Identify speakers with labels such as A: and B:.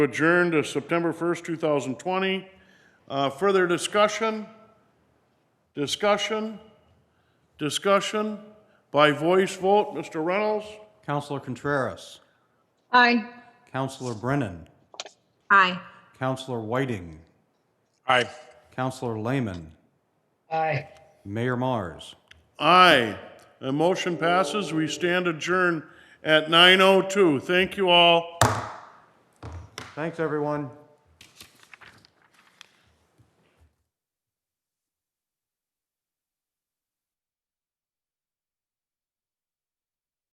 A: adjourn to September 1st, 2020. Uh, Further discussion? Discussion? Discussion? By voice vote, Mr. Reynolds?
B: Counselor Contreras,
C: Aye.
B: Counselor Brennan,
C: Aye.
B: Counselor Whiting,
A: Aye.
B: Counselor Lehman,
C: Aye.
B: Mayor Mars.
A: Aye. The motion passes. We stand adjourned at 9:02. Thank oh you all.
B: Thanks, everyone.